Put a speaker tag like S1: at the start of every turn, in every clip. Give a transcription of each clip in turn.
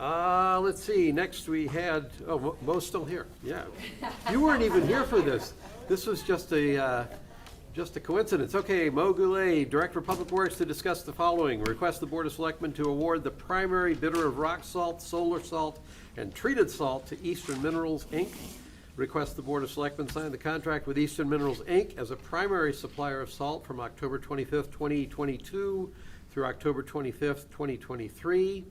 S1: Uh, let's see, next we had, oh, Mo- Mo's still here, yeah. You weren't even here for this. This was just a, uh, just a coincidence. Okay, Mo Goulet, Director of Public Works, to discuss the following. Request the Board of Selectmen to award the primary bidder of rock salt, solar salt, and treated salt to Eastern Minerals, Inc. Request the Board of Selectmen sign the contract with Eastern Minerals, Inc. as a primary supplier of salt from October twenty-fifth, twenty twenty-two through October twenty-fifth, twenty twenty-three.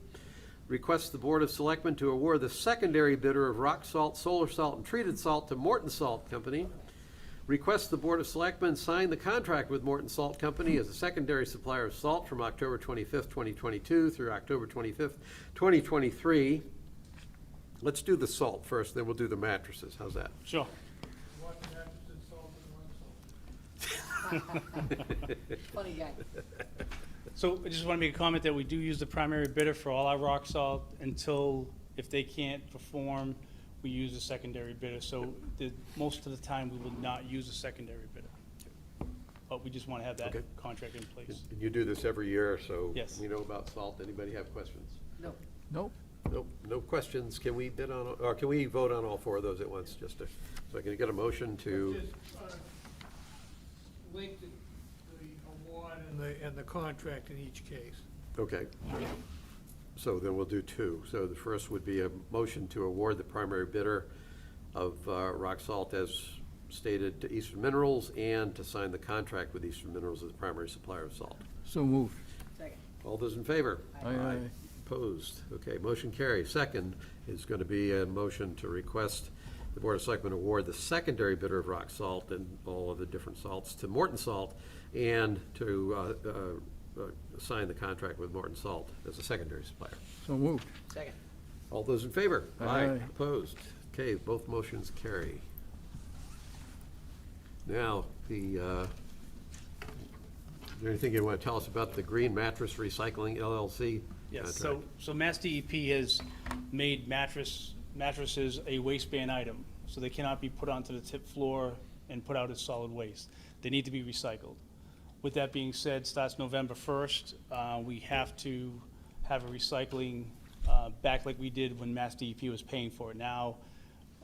S1: Requests the Board of Selectmen to award the secondary bidder of rock salt, solar salt, and treated salt to Morton Salt Company. Requests the Board of Selectmen sign the contract with Morton Salt Company as a secondary supplier of salt from October twenty-fifth, twenty twenty-two through October twenty-fifth, twenty twenty-three. Let's do the salt first, then we'll do the mattresses. How's that?
S2: Sure.
S3: Funny guy.
S2: So I just want to make a comment that we do use the primary bidder for all our rock salt until, if they can't perform, we use a secondary bidder. So the, most of the time, we will not use a secondary bidder. But we just want to have that
S1: Okay.
S2: contract in place.
S1: And You do this every year, so
S2: Yes.
S1: we know about salt. Anybody have questions?
S3: No,
S4: Nope.
S1: Nope, no questions. Can we bid on, or can we vote on all four of those at once, just to, so I can get a motion to?
S5: Just, uh, Link the the award and the, and the contract in each case.
S1: Okay. So then we'll do two. So the first would be a motion to award the primary bidder of uh, rock salt as stated to Eastern Minerals and to sign the contract with Eastern Minerals as the primary supplier of salt.
S4: So moved.
S3: second.
S1: All those in favor?
S4: Aye. Aye. Aye.
S1: Opposed? Okay, motion carries. Second is going to be a motion to request the Board of Selectmen award the secondary bidder of rock salt and all of the different salts to Morton Salt and to uh, uh, uh, sign the contract with Morton Salt as a secondary supplier.
S4: So moved.
S3: Second.
S1: All those in favor?
S4: Aye.
S1: Opposed? Okay, both motions carry. Now, the, uh, is there anything you want to tell us about the Green Mattress Recycling LLC?
S2: Yes, so,
S1: contract?
S2: so Mass DEP has made mattress, mattresses a waistband item, so they cannot be put onto the tip floor and put out as solid waste. They need to be recycled. With that being said, starts November first, uh, we have to have a recycling, uh, back like we did when Mass DEP was paying for it. Now,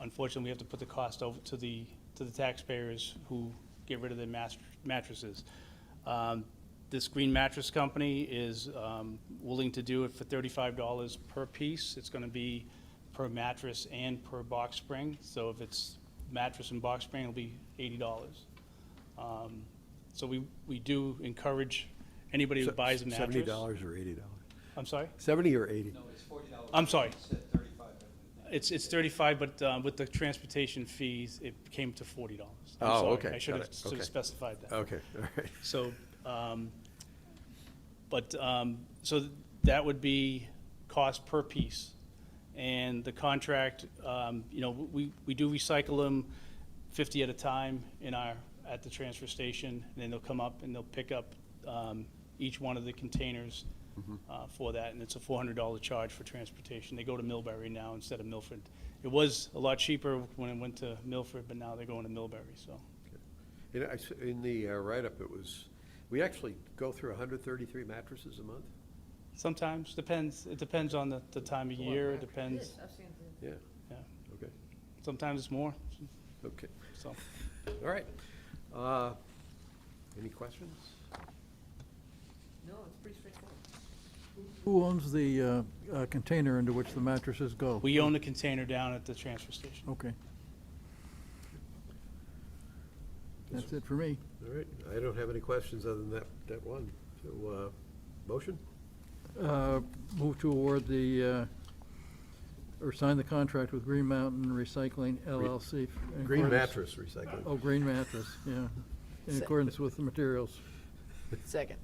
S2: unfortunately, we have to put the cost over to the, to the taxpayers who get rid of their mas- mattresses. Um, This Green Mattress Company is um, willing to do it for thirty-five dollars per piece. It's gonna be per mattress and per box spring. So if it's mattress and box spring, it'll be eighty dollars. Um, So we, we do encourage anybody who buys a mattress.
S6: Seventy dollars or eighty dollars?
S2: I'm sorry?
S6: Seventy or eighty?
S2: I'm sorry. It's, it's thirty-five, but uh, with the transportation fees, it came to forty dollars.
S1: Oh, okay,
S2: I should
S1: got
S2: have
S1: it,
S2: should
S1: okay. Oh,
S2: have specified that.
S1: Okay, all right.
S2: So, um, but, um, so that would be cost per piece. And the contract, um, you know, we, we do recycle them fifty at a time in our, at the transfer station. And then they'll come up and they'll pick up, um, each one of the containers, uh, for that. And it's a four hundred dollar charge for transportation. They go to Millbury now instead of Milford. It was a lot cheaper when it went to Milford, but now they're going to Millbury, so.
S1: You know, I s- In the uh, write-up, it was, we actually go through 133 mattresses a month?
S2: Sometimes, depends, it depends on the, the time of year, it depends,
S3: I've seen the-
S1: Yeah,
S2: yeah,
S1: okay,
S2: sometimes it's more,
S1: okay,
S2: so.
S1: all right. Uh, Any questions?
S3: No, it's pretty straightforward.
S4: Who owns the uh, uh, container into which the mattresses go?
S2: We own the container down at the transfer station.
S4: Okay. That's it for me.
S1: All right, I don't have any questions other than that, that one. So, uh, motion?
S4: Uh, Move to award the, uh, or sign the contract with Green Mountain Recycling LLC. in
S1: Green
S4: accordance-
S1: mattress recycling.
S4: Oh, Green Mattress, yeah. In
S3: Sec-
S4: accordance with the materials.
S3: Second.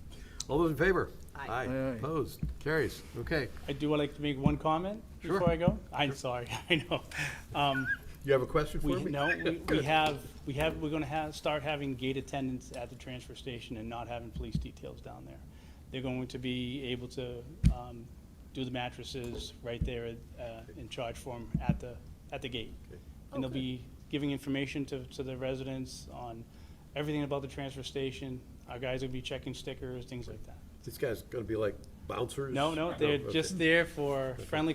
S1: All those in favor?
S3: Aye.
S1: Aye,
S4: Aye, aye.
S1: opposed, carries, okay.
S2: I do like to make one comment before I go. I'm sorry, I know. Um,
S1: You have a question for
S2: we,
S1: me?
S2: no, we, we have, we have, we're gonna have, start having gate attendants at the transfer station and not having police details down there. They're going to be able to, um, do the mattresses right there, uh, and charge for them at the, at the gate. And they'll be giving information to, to the residents on everything about the transfer station. Our guys will be checking stickers, things like that.
S1: These guys gonna be like bouncers?
S2: No, no, they're
S1: Oh, okay.
S2: just there for friendly